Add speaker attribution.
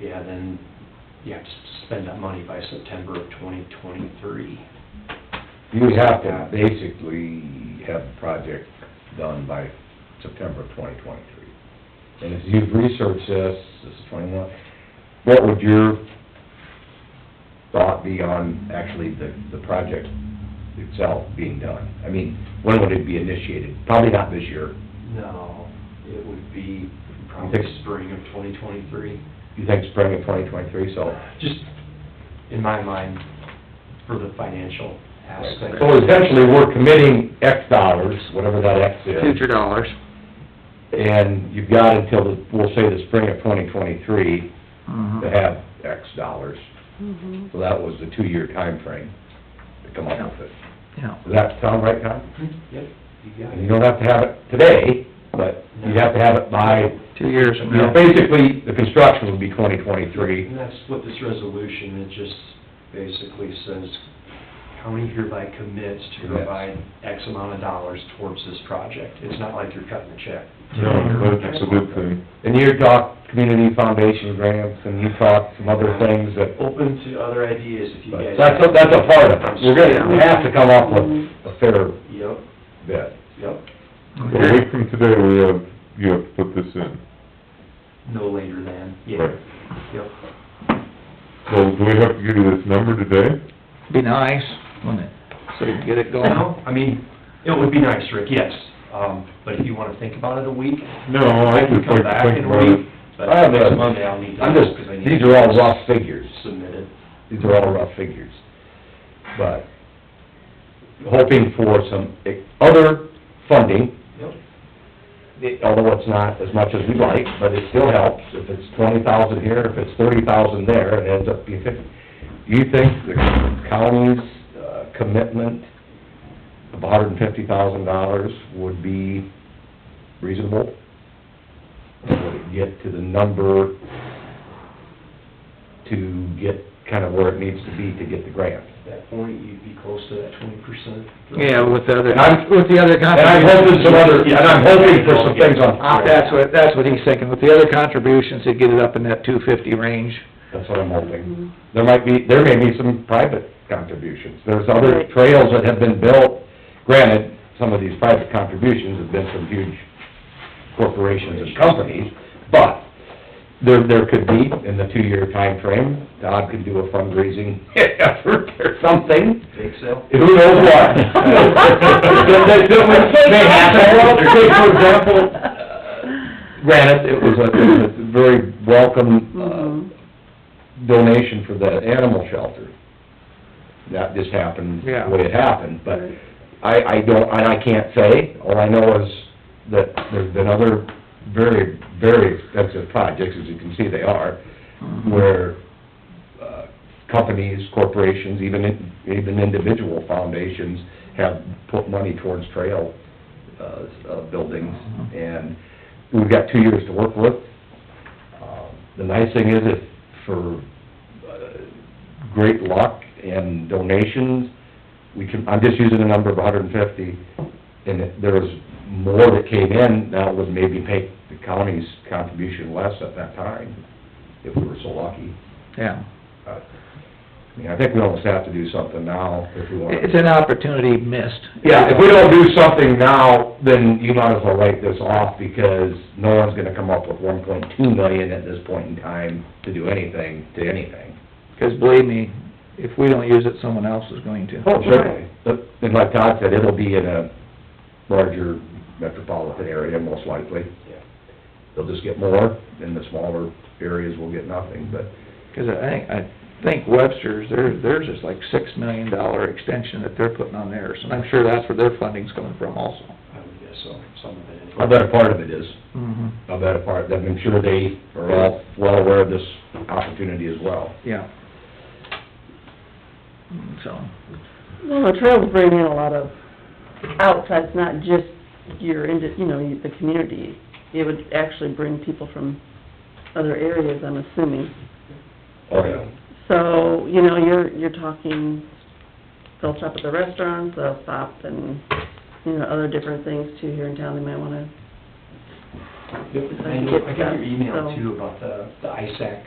Speaker 1: yeah, then you have to spend that money by September of twenty twenty-three.
Speaker 2: You have to basically have the project done by September of twenty twenty-three. And as you've researched this, this is twenty-one, what would your thought be on actually the, the project itself being done? I mean, when would it be initiated? Probably not this year.
Speaker 1: No, it would be probably
Speaker 2: Six.
Speaker 1: spring of twenty twenty-three.
Speaker 2: You think spring of twenty twenty-three, so.
Speaker 1: Just in my mind, for the financial aspect.
Speaker 2: So essentially, we're committing X dollars, whatever that X is.
Speaker 3: future dollars.
Speaker 2: And you've got until, the- we'll say the spring of twenty twenty-three to
Speaker 3: Mhm.
Speaker 2: have X dollars. So that was the two-year time frame to come up with it.
Speaker 3: Yeah,
Speaker 2: Does that sound right, Tom?
Speaker 1: Hmm? Yep, you got
Speaker 2: And you
Speaker 1: it.
Speaker 2: don't have to have it today, but you have to have it by,
Speaker 3: two years
Speaker 2: you
Speaker 3: from
Speaker 2: know,
Speaker 3: now.
Speaker 2: basically, the construction would be twenty twenty-three.
Speaker 1: And that's what this resolution, it just basically says, county hereby commits to
Speaker 2: Commits.
Speaker 1: provide X amount of dollars towards this project. It's not like you're cutting a check.
Speaker 4: No, that's a good thing.
Speaker 2: And you talked community foundation grants, and you talked some other things that,
Speaker 1: Open to other ideas if you guys.
Speaker 2: but that's, a- that's a part of it. We're gonna, we have to come up with a fair
Speaker 1: Yep,
Speaker 2: bid.
Speaker 1: yep,
Speaker 4: A
Speaker 3: Okay.
Speaker 4: week from today, we have, you have to put this in.
Speaker 1: no later than, yeah,
Speaker 4: Right.
Speaker 1: yep.
Speaker 4: So do we have to give you this number today?
Speaker 3: Be nice, wouldn't it? So you can get it going.
Speaker 1: No, I mean, it would be nice, Rick, yes, um, but if you wanna think about it a week,
Speaker 4: No, I
Speaker 1: I can
Speaker 4: just
Speaker 1: come
Speaker 4: like to
Speaker 1: back
Speaker 4: think
Speaker 1: in a
Speaker 4: about it.
Speaker 1: week. But
Speaker 2: I have
Speaker 1: next
Speaker 2: a-
Speaker 1: Monday I'll need to.
Speaker 2: I'm just,
Speaker 1: 'cause I need
Speaker 2: these
Speaker 1: to
Speaker 2: are all rough figures.
Speaker 1: Submit it.
Speaker 2: These are all rough figures. But hoping for some e-, other funding,
Speaker 1: Yep.
Speaker 2: although it's not as much as we'd like, but it still helps. If it's twenty thousand here, if it's thirty thousand there, it ends up being fifty. You think the county's uh, commitment of hundred and fifty thousand dollars would be reasonable? Or Would it get to the number to get kind of where it needs to be to get the grant?
Speaker 1: At that point, you'd be close to that twenty percent.
Speaker 3: Yeah, with the
Speaker 2: And I'm-
Speaker 3: other, with the other
Speaker 2: And I'm hoping
Speaker 3: contributions. Uh,
Speaker 2: some other, and I'm hoping for some things on top of
Speaker 3: That's
Speaker 2: that.
Speaker 3: what, that's what he's thinking. With the other contributions, he'd get it up in that two fifty range.
Speaker 2: That's what I'm hoping. There might be, there may be some private contributions. There's other
Speaker 5: Right.
Speaker 2: trails that have been built. Granted, some of these private contributions have been from huge corporations and companies, but there, there could be, in the two-year time frame, Todd could do a fundraising effort or something.
Speaker 1: Bake sale?
Speaker 2: Who knows what? That, that, that would- may happen. Say, for example, granted, it was a, it was a very welcome, uh, donation for the animal shelter. That just happened, the
Speaker 3: Yeah.
Speaker 2: way it happened, but I, I don't, and I can't say, all I know is that there's been other very, very expensive projects, as you can see they are, where, uh, companies, corporations, even, in- even individual foundations have put money towards trail, uh, uh, buildings, and we've got two years to work with. Um, The nice thing is if, for, uh, great luck and donations, we can, I'm just using a number of hundred and fifty, and if there was more that came in, that would maybe make the county's contribution less at that time, if we were so lucky.
Speaker 3: Yeah.
Speaker 2: But, I mean, I think we almost have to do something now if we want
Speaker 3: It's
Speaker 2: to.
Speaker 3: an opportunity missed.
Speaker 2: Yeah, if we don't do something now, then you might as well write this off because no one's gonna come up with one point two million at this point in time to do anything, to anything.
Speaker 3: Because believe me, if we don't use it, someone else is going to.
Speaker 2: Oh, certainly. But, and like Todd said, it'll be in a larger metropolitan area, most likely.
Speaker 1: Yeah.
Speaker 2: They'll just get more, and the smaller areas will get nothing, but,
Speaker 3: Because I think, I think Webster's, their, theirs is like six million dollar extension that they're putting on theirs, and I'm sure that's where their funding's coming from also.
Speaker 1: I would guess so, some of it.
Speaker 2: I bet a part of it is.
Speaker 3: Mm-hmm.
Speaker 2: I bet a part, I'm sure they are all well aware of this opportunity as well.
Speaker 3: Yeah. Mm, So,
Speaker 5: Well, the trails bring in a lot of outside, it's not just your, indi- you know, the community. It would actually bring people from other areas, I'm assuming.
Speaker 2: Oh, yeah.
Speaker 5: So, you know, you're, you're talking, they'll stop at the restaurants, they'll stop and, you know, other different things too here in town they might wanna
Speaker 1: Yep, I know, I got your email too about the, the ISAC